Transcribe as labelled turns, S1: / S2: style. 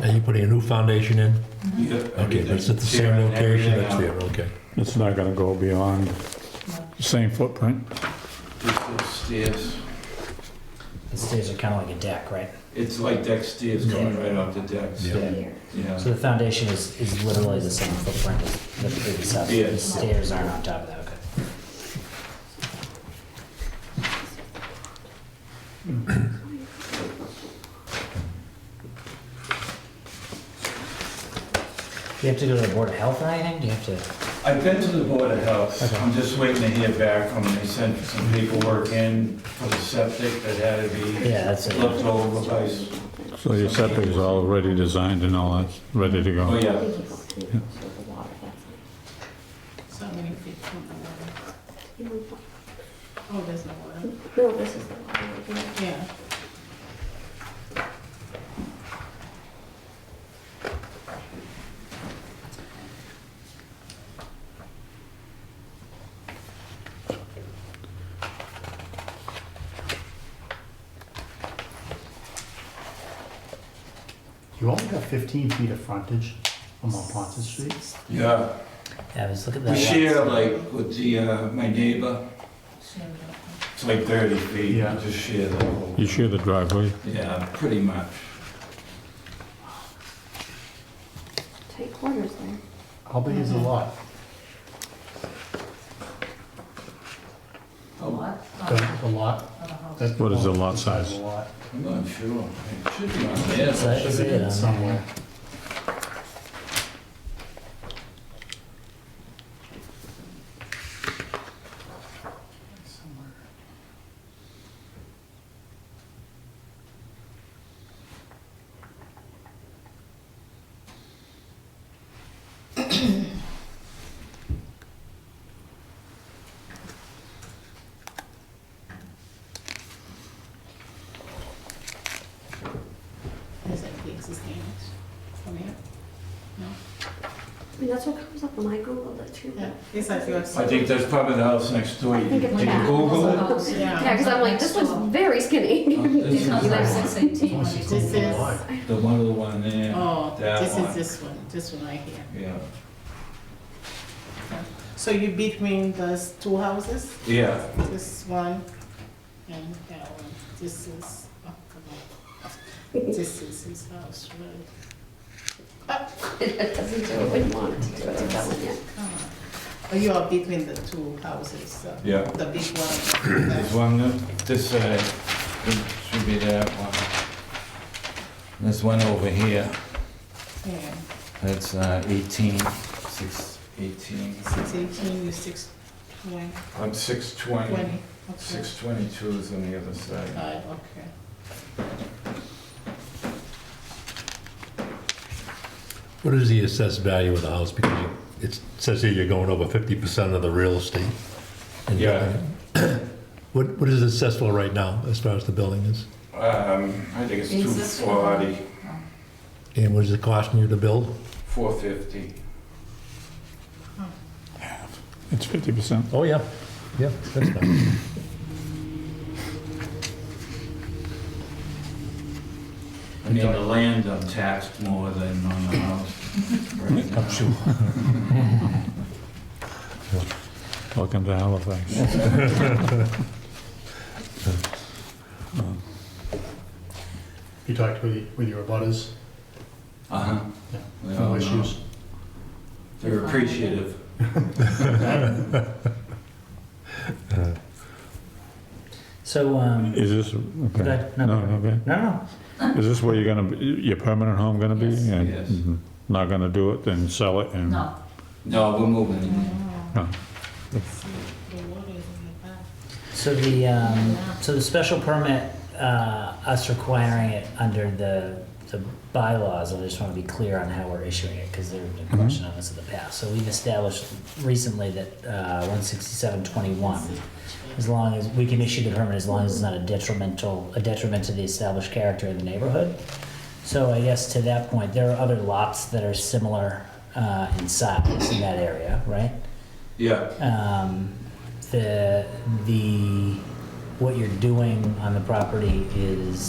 S1: Are you putting a new foundation in? Okay, but it's at the same location that's there, okay.
S2: It's not gonna go beyond the same footprint.
S3: Just those stairs.
S4: The stairs are kind of like a deck, right?
S3: It's like deck stairs coming right off the decks.
S1: Yeah.
S3: Yeah.
S4: So the foundation is, is literally the same footprint as the previous house.
S3: Yeah.
S4: The stairs aren't on top of that, okay. Do you have to go to the Board of Health or anything? Do you have to,
S3: I've been to the Board of Health. I'm just waiting to hear back from them. They sent some paperwork in for the septic that had to be
S4: yeah, that's it.
S3: left over by, s-
S2: So your septic is already designed and all that's ready to
S3: oh
S2: go.
S3: yeah.
S5: So many feet from the water. Oh, there's no water.
S6: No, this is the one.
S5: Yeah.
S7: You only got 15 feet of frontage on Mont Ponce Street?
S3: Yeah.
S4: Yeah, let's look at that.
S3: We
S4: lot.
S3: share like with the, uh, my neighbor. It's like 30 feet.
S7: Yeah.
S3: We Just share the whole.
S2: You share the driveway.
S3: Yeah, pretty much.
S6: Tight corners there.
S7: How big is the lot?
S3: Oh,
S7: The the lot? That's-
S2: What is the lot size?
S7: The lot.
S3: I'm not sure. It should be on there.
S4: So that is
S7: Should be
S4: it, um,
S7: somewhere.
S5: Is it the existing from here?
S6: I mean, that's what comes up when I Googled it too.
S5: Yeah. Yes, I feel so.
S3: I think that's probably the house next door.
S6: I think it's
S3: Did you
S6: that.
S3: Google it?
S5: Yeah.
S6: Yeah, because I'm like, this looks very skinny.
S3: Oh, This is
S6: You
S3: the
S6: guys-
S3: one.
S7: Once you
S5: This
S7: go to the
S5: is-
S7: lot.
S3: The one with the one there.
S5: Oh,
S3: That
S5: this
S3: one.
S5: is this one, this one right here.
S3: Yeah.
S5: So you between those two houses,
S3: Yeah.
S5: this one and that one. This is, oh, come on. This is his house, right?
S6: It doesn't do it when you want it to do it, do that one yet.
S5: Come on. Oh, you are between the two houses, so
S3: Yeah.
S5: the big one.
S3: This one, uh, this side, it should be that one. This one over here,
S5: Yeah.
S3: that's uh, 18, 6, 18.
S5: Six eighteen, you six twenty,
S3: I'm 620.
S5: twenty, okay.
S3: 622 is on the other side.
S5: Five, okay.
S1: What is the assessed value of the house? Because you- it says here you're going over 50% of the real estate. And-
S3: Yeah.
S1: What, what is assessable right now as far as the building is?
S3: Um, I think it's
S5: Existing.
S3: 240,
S1: And what is it costing you to build?
S3: 450.
S2: It's fifty percent.
S1: Oh, yeah, yeah, that's fine.
S3: I mean, the land I'm taxed more than on the house. right now.
S2: Welcome to Halifax.
S7: You talked with, y- with your abutters,
S3: Uh-huh.
S7: Yeah.
S3: They all
S7: no
S3: know.
S7: issues?
S3: They're appreciative.
S4: So, um,
S2: Is this, okay.
S4: Good, no.
S2: No, okay.
S4: no, no,
S2: Is this where you're gonna, be- your permanent home gonna be?
S8: Yes.
S2: And-
S3: Yes.
S2: mhm. Not gonna do it, then sell it and?
S8: No,
S3: No, we're moving.
S2: No.
S5: See, the water is in the back.
S4: so the, um, so the special permit, uh, us requiring it under the, the bylaws, I just wanna be clear on how we're issuing it, cause there have been questions on this in the past. So we've established recently that, uh, one sixty-seven twenty-one, as long as, we can issue the permit as long as it's not a detrimental, a detriment to the established character of the neighborhood. So I guess to that point, there are other lots that are similar, uh, in size in that area, right?
S3: Yeah.
S4: um, the the what you're doing on the property is